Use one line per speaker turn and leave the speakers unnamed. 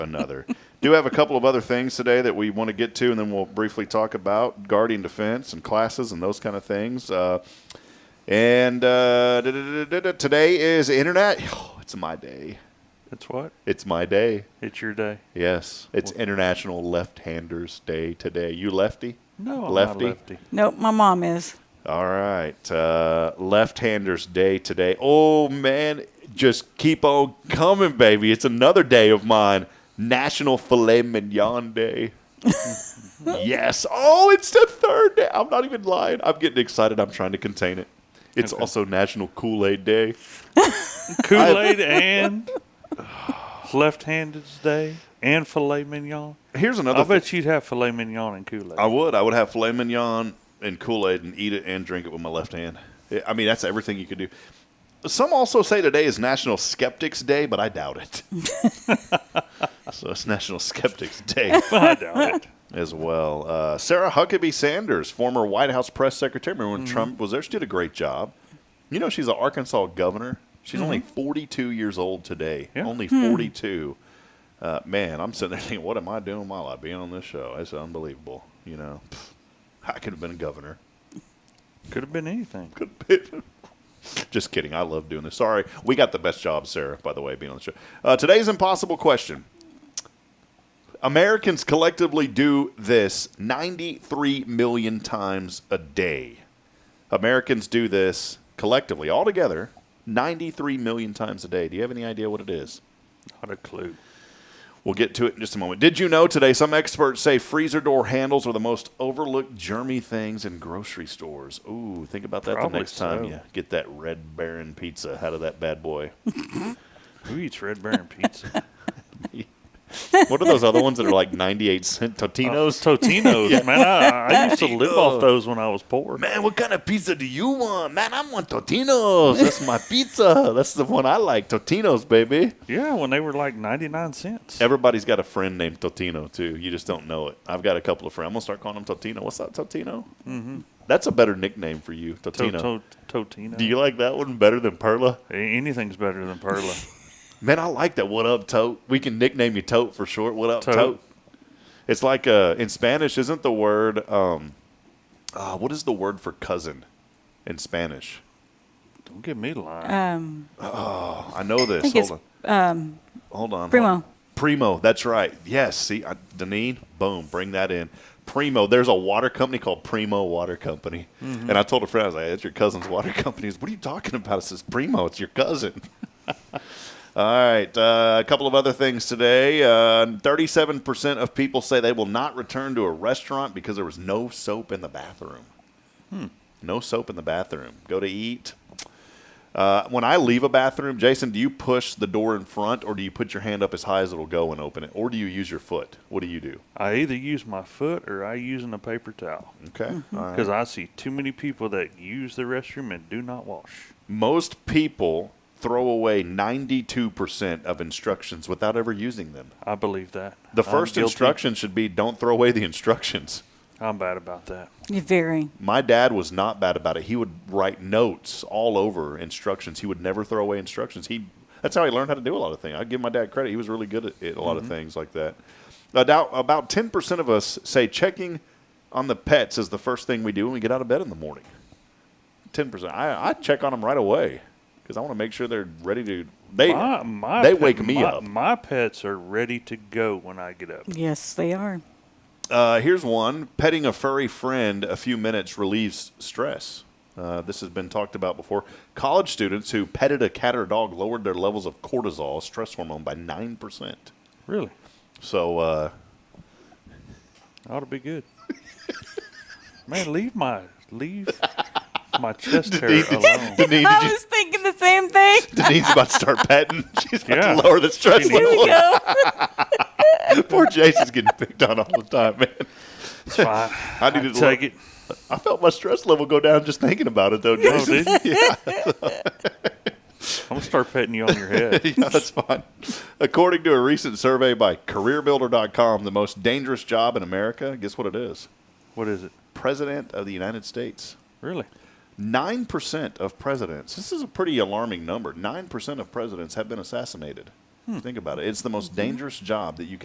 another. Do have a couple of other things today that we want to get to, and then we'll briefly talk about guarding defense and classes and those kind of things. Uh, and uh, da- da- da- da- da- today is internet. Oh, it's my day.
It's what?
It's my day.
It's your day.
Yes, it's International Left-Handers Day today. You lefty?
No, I'm
lefty.
not lefty.
Nope, my mom is.
All right, uh, left-handers day today. Oh man, just keep on coming, baby. It's another day of mine. National Filet Mignon Day. yes. Oh, it's the third day. I'm not even lying. I'm getting excited. I'm trying to contain it. It's also National Kool Aid Day.
Kool Aid and left handed day and filet mignon.
Here's another. Oh.
I
thing.
bet you'd have filet mignon and Kool Aid.
I would. I would have filet mignon and Kool Aid and eat it and drink it with my left hand. I- I mean, that's everything you could do. Some also say today is National Skeptics Day, but I doubt it. so it's National Skeptics Day
I doubt it.
as well. Uh, Sarah Huckabee Sanders, former White House press secretary, remember when Trump was there, she did a great job. You know, she's an Arkansas governor. She's only 42 years old today.
Yeah.
Only 42. Uh, man, I'm sitting there thinking, what am I doing while I be on this show? It's unbelievable. You know, Pfft, I could have been a governor.
Could have been anything.
Just kidding. I love doing this. Sorry. We got the best job, Sarah, by the way, being on the show. Uh, today's impossible question. Americans collectively do this 93 million times a day. Americans do this collectively, all together, 93 million times a day. Do you have any idea what it is?
Not a clue.
We'll get to it in just a moment. Did you know today some experts say freezer door handles are the most overlooked germy things in grocery stores? Ooh, think about that the
Probably
next time
so.
you get that Red Baron pizza out of that bad boy.
Who eats Red Baron pizza?
what are those other ones that are like 98 cent Totinos?
Those Uh, Totinos, man. I, I used to live
Totino.
off those when I was poor.
Man, what kind of pizza do you want? Man, I want Totinos. That's my pizza. That's the one I like. Totinos, baby.
Yeah, when they were like 99 cents.
Everybody's got a friend named Totino too. You just don't know it. I've got a couple of friends. I'm gonna start calling him Totino. What's up, Totino? Mm-hmm. That's a better nickname for you,
To-
Totino.
to- Totino.
Do you like that one better than Perla?
Anything's better than Perla.
Man, I like that. What up, Tote? We can nickname you Tote for short. What up, Tote?
Tote.
It's like uh, in Spanish, isn't the word? Um, uh, what is the word for cousin in Spanish?
Don't give me lying.
Um,
I know this.
think
hold,
it's, um,
on. hold on. hold
Primo.
on. Primo. That's right. Yes. See, I, Deneen. Boom. Bring that in. Primo. There's a water company called Primo Water Company, and I told a friend, I was like, "It's your cousin's water company." He's, what are you talking about? I says, "Primo. It's your cousin." All right. Uh, a couple of other things today. Uh, Thirty-seven percent of people say they will not return to a restaurant because there was no soap in the bathroom. No soap in the bathroom. Go to eat. Uh, when I leave a bathroom, Jason, do you push the door in front or do you put your hand up as high as it'll go and open it? Or do you use your foot? What do you do?
I either use my foot or I use in a paper towel.
Okay. All right.
Because I see too many people that use the restroom and do not wash.
Most people throw away 92% of instructions without ever using them.
I believe that.
The
I'm
first
guilty.
instruction should be don't throw away the instructions.
I'm bad about that.
you're very.
My dad was not bad about it. He would write notes all over instructions. He would never throw away instructions. He that's how he learned how to do a lot of things. I give my dad credit. He was really good at it, a lot of things like that. About about ten percent of us say checking on the pets is the first thing we do when we get out of bed in the morning. Ten percent. I, I check on them right away because I want to make sure they're ready to. They
My, my
they
pet-
wake me
my-
up.
My pets are ready to go when I get up.
Yes, they are.
Uh, here's one: petting a furry friend a few minutes relieves stress. Uh, this has been talked about before. College students who petted a cat or dog lowered their levels of cortisol, stress hormone, by nine percent.
Really?
So uh,
Ought to be good. Man, leave my leave my chest hair alone.
Denise,
I
did you,
was thinking the same thing.
Denise's about to start petting. She's about
Yeah.
to lower the stress
She needs
Here we
level.
go.
Poor Jason's getting picked on all the time, man.
It's fine.
I needed to
take it.
I felt my stress level go down just thinking about it, though.
Oh,
Jason.
dude. I'm gonna start petting you on your head.
yeah, that's fine. According to a recent survey by CareerBuilder.com, the most dangerous job in America, guess what it is?
What is it?
President of the United States.
Really?
9% of presidents, this is a pretty alarming number, 9% of presidents have been assassinated. Think about it. It's the most dangerous job that you